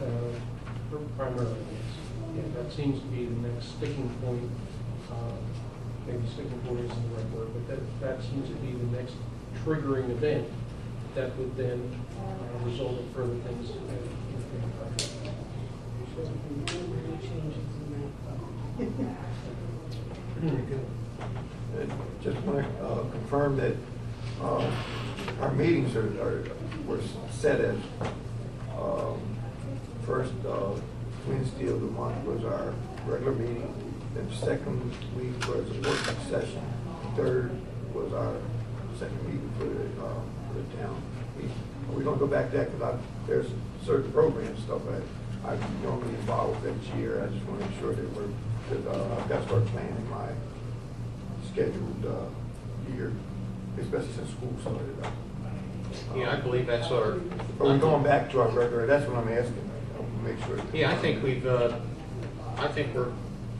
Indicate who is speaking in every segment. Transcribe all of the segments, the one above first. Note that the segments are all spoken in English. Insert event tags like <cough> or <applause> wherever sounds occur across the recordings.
Speaker 1: Uh, primarily, yes. Yeah, that seems to be the next sticking point. uh, Maybe sticking point isn't the right word, but that, that seems to be the next triggering event that would then uh, result in further things. uh, in the contract.
Speaker 2: Very good. And Uh, Just want to confirm that uh, our meetings are, are- were set as, um, first uh, Wednesday of the month was our regular meeting, then second week was a working session, third was our second meeting for the, uh, for the town. We- We don't go back to that because there's certain program stuff that I normally involve each year. I just want to make sure that we're, that uh, I've got to start planning my scheduled uh, year, especially since school started up.
Speaker 3: Yeah, I believe that's our.
Speaker 2: Are we going back to our regular, that's what I'm asking, I want to make sure.
Speaker 3: Yeah, I think we've, uh, I think we're,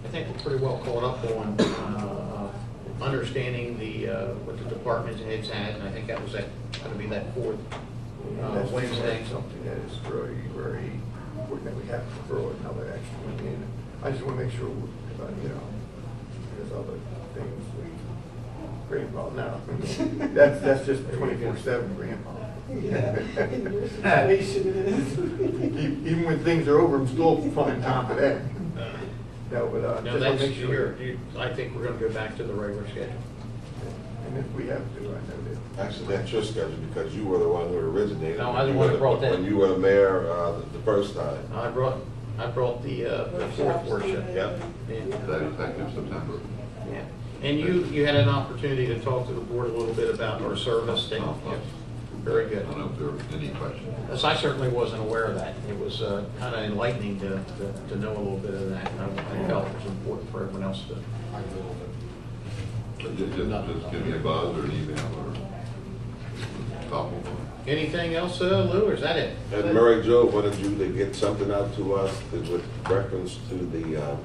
Speaker 3: I think we're pretty well caught up on, uh, understanding the, uh, what the department heads had, and I think that was that, gonna be that fourth
Speaker 2: Yeah,
Speaker 3: uh,
Speaker 2: That's
Speaker 3: Wednesday.
Speaker 2: Wednesday, something that is very, very important that we have to throw another action in. I just want to make sure, uh, you know, there's other things we grandpa now. <laughs> That's, that's just twenty-four seven grandpa. <laughs> E- Even when things are over, I'm still finding time for that. No, but uh,
Speaker 3: No,
Speaker 2: just want
Speaker 3: that's,
Speaker 2: to make sure.
Speaker 3: you're, you, I think we're gonna go back to the regular schedule.
Speaker 2: And if we have to, I know that.
Speaker 4: Actually, that's your schedule because you were the one who originated.
Speaker 3: No, I was the one who brought that.
Speaker 4: When you were mayor uh, the- the first time.
Speaker 3: I brought, I brought the, uh, the fourth workshop.
Speaker 4: Yep.
Speaker 3: Yeah.
Speaker 4: That effective September.
Speaker 3: Yeah, And you, you had an opportunity to talk to the board a little bit about our service, and,
Speaker 2: Uh-huh.
Speaker 3: yeah, very
Speaker 4: I
Speaker 3: good.
Speaker 4: don't know if there were any questions.
Speaker 3: Yes, I certainly wasn't aware of that. It was kind of enlightening to, to- to know a little bit of that, and I I felt it was important for everyone else to.
Speaker 4: But ju- ju- Just give me a buzz or an email or talk with them.
Speaker 3: Anything else, uh, Lou, or is that it?
Speaker 5: And Mary Jo wanted you to get something out to us that- with reference to the, uh,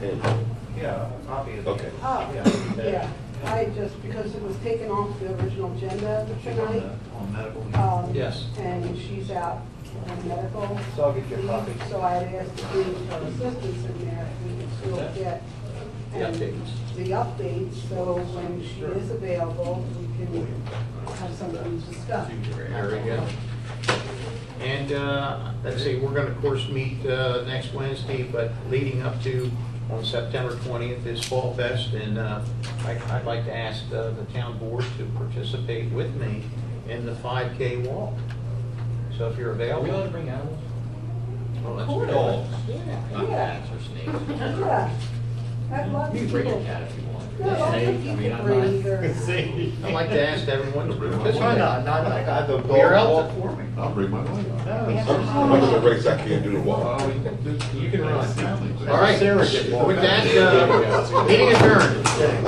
Speaker 5: handbook.
Speaker 3: Yeah, obviously.
Speaker 5: Okay.
Speaker 6: Oh, yeah, I just, because it was taken off the original agenda tonight,
Speaker 3: On medical.
Speaker 6: um,
Speaker 3: Yes.
Speaker 6: and she's out on medical.
Speaker 2: So I'll get you a
Speaker 6: leave,
Speaker 2: copy.
Speaker 6: So I had asked to bring her assistants in there, if we could still get.
Speaker 3: The
Speaker 6: and
Speaker 3: updates.
Speaker 6: The updates, so when she is available, we can have something to discuss.
Speaker 3: There we go. And, uh, let's see, we're gonna, of course, meet, uh, next Wednesday, but leading up to, on September twentieth is Fall Fest, and, uh, I, I'd like to ask, uh, the town board to participate with me in the five K walk. So if you're
Speaker 7: Are we allowed to
Speaker 3: available.
Speaker 7: bring animals?
Speaker 3: Well, that's
Speaker 6: Cool.
Speaker 3: dogs,
Speaker 7: Not
Speaker 6: Yeah,
Speaker 7: cats
Speaker 2: <laughs>
Speaker 7: or snakes.
Speaker 6: yeah. I'd love
Speaker 7: You
Speaker 6: to.
Speaker 7: can bring a cat if you want.
Speaker 6: No, I think
Speaker 7: Snake, I
Speaker 6: you
Speaker 7: mean,
Speaker 6: could
Speaker 7: I'm not-
Speaker 6: bring your-
Speaker 7: <laughs>
Speaker 3: I'd like to ask everyone to participate.
Speaker 4: Why
Speaker 2: not? Not like I- the
Speaker 3: We're
Speaker 2: dog
Speaker 3: out
Speaker 2: walk.
Speaker 3: for me.
Speaker 4: I'll bring my wife. <laughs>
Speaker 5: I'm I'm in a race, I can't do the walk.
Speaker 4: You
Speaker 3: can run.
Speaker 4: All
Speaker 3: All right, with that, uh, meeting adjourned.